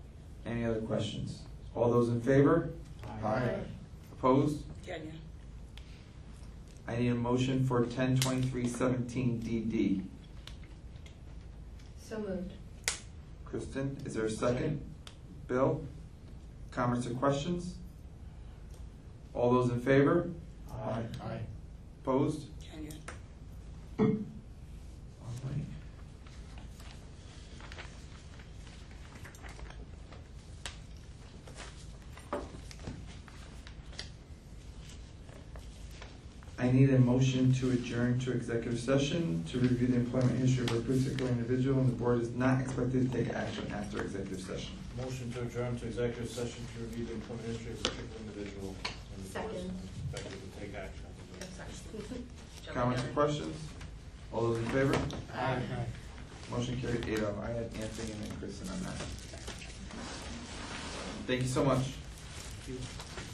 other questions? All those in favor? Aye. Opposed? Kenya. I need a motion for ten twenty-three seventeen DD. So moved. Kristen, is there a second? Bill? Comments or questions? All those in favor? Aye. Aye. Opposed? Kenya. All right. I need a motion to adjourn to executive session to review the employment history of a particular individual, and the board is not expected to take action after executive session. Motion to adjourn to executive session to review the employment history of a particular individual. and the board is Second. Expected to take action. Comments or questions? All those in favor? Aye. Motion carried eight oh. I had Anthony and then Kristen on that. Thank you so much.